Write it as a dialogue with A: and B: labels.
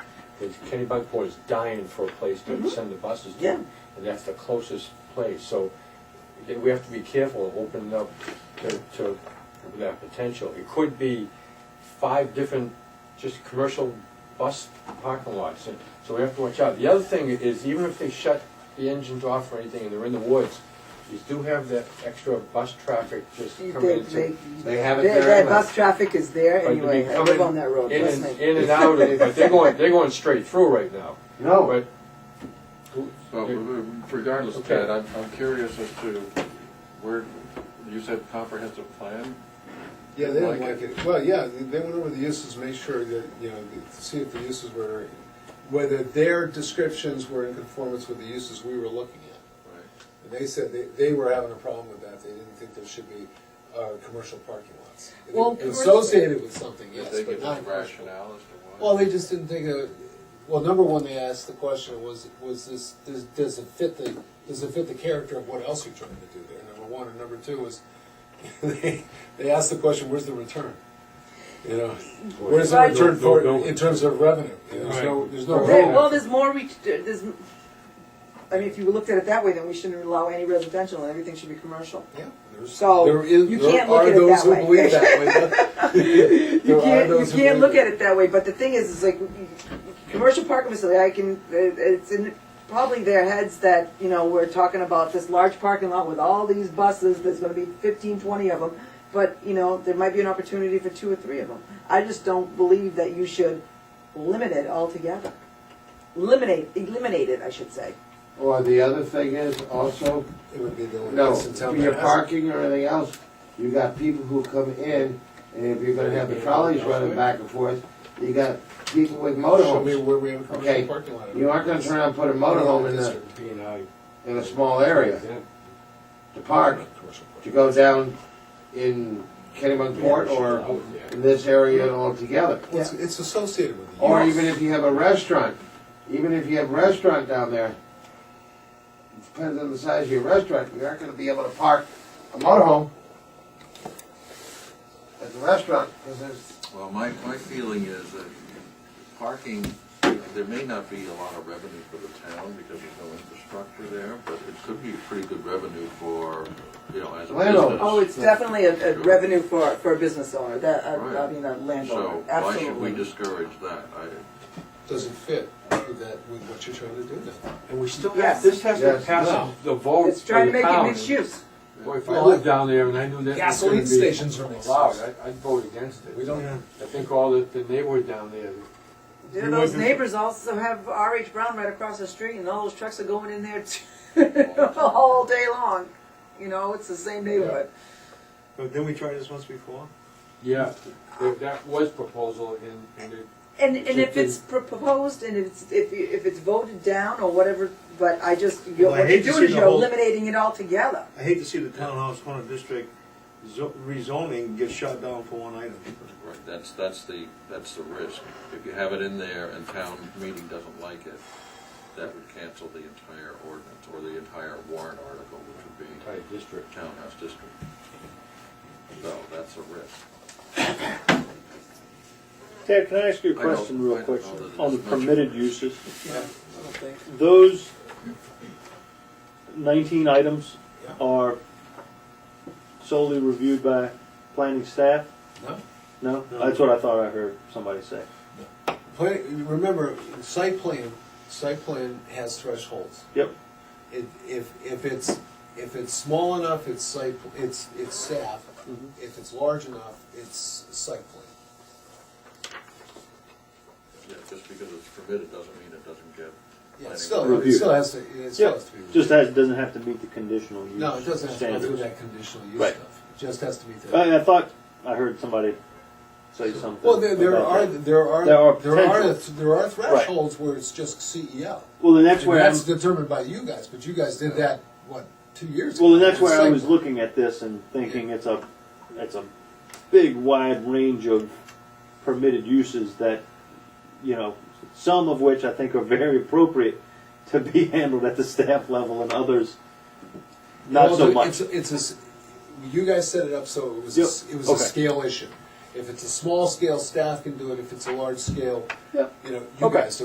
A: is Kenny Bunkport is dying for a place to send the buses to.
B: Yeah.
A: And that's the closest place, so th- we have to be careful of opening up to, to that potential. It could be five different, just commercial bus parking lots, and so we have to watch out. The other thing is, even if they shut the engines off or anything and they're in the woods, you do have that extra bus traffic just
B: They,
A: coming into.
B: they,
A: They have it
B: their-
A: there
B: Their
A: anyway.
B: bus traffic is there
A: But
B: anyway,
A: they
B: I live
A: come
B: on that road,
A: in
B: trust
A: and-
B: me.
A: In and out, of- but they're going, they're going straight through right now,
C: No,
A: but.
D: Well, regardless,
A: Okay.
D: Ted, I'm, I'm curious as to where, you said comprehensive plan?
E: Yeah, they didn't
D: Like
E: like
D: it.
E: it. Well, yeah, they they went over the uses, make sure that, you know, to see if the uses were, whether their descriptions were in conformance with the uses we were looking at. And they said they, they were having a problem with that, they didn't think there should be, uh, commercial parking lots.
B: Well,
E: Associated with something,
D: Did
E: yes,
D: they
E: but
D: give
E: not
D: any
E: commercial.
D: rationale as to why?
E: Well, they just didn't think of, well, number one, they asked the question was, was this, does, does it fit the, does it fit the character of what else you're trying to do there? Number one, and number two was, they, they asked the question, where's the return? You know, where's the
B: Right.
E: return
A: No,
E: for,
A: no, no.
E: in terms of revenue? You know, There's no, there's no.
B: There-
E: revenue.
B: Well, there's more, we, there's, I mean, if you looked at it that way, then we shouldn't allow any residential, everything should be commercial.
E: Yeah, there's-
B: So,
E: there is-
B: you
E: there
B: can't look
E: are
B: at it that
E: those who
B: way.
E: believe that way.
B: You can't, you can't look at it that way, but the thing is, is like, commercial parking facility, I can, it- it's in probably their heads that, you know, we're talking about this large parking lot with all these buses, there's gonna be fifteen, twenty of them, but, you know, there might be an opportunity for two or three of them. I just don't believe that you should limit it altogether. Eliminate, eliminate it, I should say.
C: or the other thing is also,
E: It would be the only
C: no,
E: place in town
C: for
E: that
C: your
E: has it.
C: parking or anything else, you got people who come in, and if you're gonna have the trolleys running back and forth, you got people with
E: Show me
C: motorhomes.
E: where we have a commercial
C: Okay,
E: parking lot.
C: You aren't gonna turn around and put a motorhome in a,
E: District.
A: B and I.
C: in a small area to park,
E: Commercial parking.
C: to go down in Kennebunkport or in this area altogether.
E: Well, It's, it's associated with the
C: Or
E: use.
C: even if you have a restaurant, even if you have a restaurant down there, depends on the size of your restaurant, you aren't gonna be able to park a motorhome at the restaurant, because there's,
D: Well, my, my feeling is that parking, there may not be a lot of revenue for the town because there's no infrastructure there, but it could be pretty good revenue for, you know, as a
C: Landlord.
D: business.
B: Oh, it's definitely a, a revenue for, for a business owner, that, I, I
D: Right.
B: mean, a landlord,
D: So why
B: Oh, absolutely.
D: should we discourage that? I,
E: doesn't fit with that, with what you're trying to do then.
A: And we still have,
B: Yes.
A: this has to
C: Yes.
A: pass
E: No.
A: the vote
B: It's
A: of
B: trying to
A: the
B: make it
A: town.
B: mixed use.
A: Boy, if I lived down there and I knew that was gonna
E: Gasoline
A: be
E: stations are mixed
A: allowed,
E: use.
A: I'd, I'd vote against
E: We
A: it.
E: don't,
A: I think all the, the neighborhood down there,
B: Yeah,
A: You
B: those
A: wouldn't-
B: neighbors also have R.H. Brown right across the street, and all those trucks are going in there all day long. You know, it's the same neighborhood.
F: But didn't we try this once before?
A: yeah, there- that was proposal and, and it,
B: And, and if it's pro- proposed and if it's, if, you- if it's voted down or whatever, but I just, you're,
F: Well, I
B: what
F: hate
B: you're
F: to
B: doing
F: see
B: is
F: the
B: you're
F: whole-
B: eliminating it altogether.
F: I hate to see the townhouse corner district zo- rezoning get shot down for one item.
D: right, that's, that's the, that's the risk. If you have it in there and town meeting doesn't like it, that would cancel the entire ordinance or the entire warrant article, which would be
A: entire district.
D: townhouse district. So that's a risk.
G: Ted, can I ask you a
D: I don't-
G: question
D: I
G: real
D: don't
G: quick
D: know that
G: on the
D: it's much of a
G: permitted
D: risk.
G: uses?
E: I don't think,
G: Those nineteen items are solely reviewed by planning staff?
E: no.
G: No?
F: No.
G: That's what I thought I heard somebody say.
E: Plan, remember, site plan, site plan has thresholds.
G: Yep.
E: It, if, if it's, if it's small enough, it's site, pl- it's, it's staff.
A: Mm-hmm.
E: If it's large enough, it's site plan.
D: Yeah, just because it's permitted doesn't mean it doesn't get.
E: Yeah,
D: planning
E: it still, it
G: Review.
E: still has to, it still
G: Yeah,
E: has to be. reviewed.
G: just has, doesn't have to meet the conditional use
E: No, it doesn't have to go through
G: standards.
E: that conditional use
G: Right.
E: stuff. It just has to be there.
G: I, I thought I heard somebody say something.
E: Well, there, there
G: about
E: are,
G: that.
E: there are,
G: There are
E: there are,
G: potentials.
E: there are thresholds where it's just E CEO.
G: Well, then that's
E: And
G: where I'm,
E: That's determined by you guys, but you guys did that, what, two years ago?
G: well, then that's where I
E: Same.
G: was looking at this and thinking it's a, it's a big wide range of permitted uses that, you know, some of which I think are very appropriate to be handled at the staff level and others not
E: Well,
G: so
E: the-
G: much.
E: It's, it's a s you guys set it up so it was, a
G: Yep.
E: s- it was a
G: Okay.
E: scale issue. If it's a small scale, staff can do it. If it's a large scale,
G: Yep.
E: you know, you
G: Okay.
E: guys do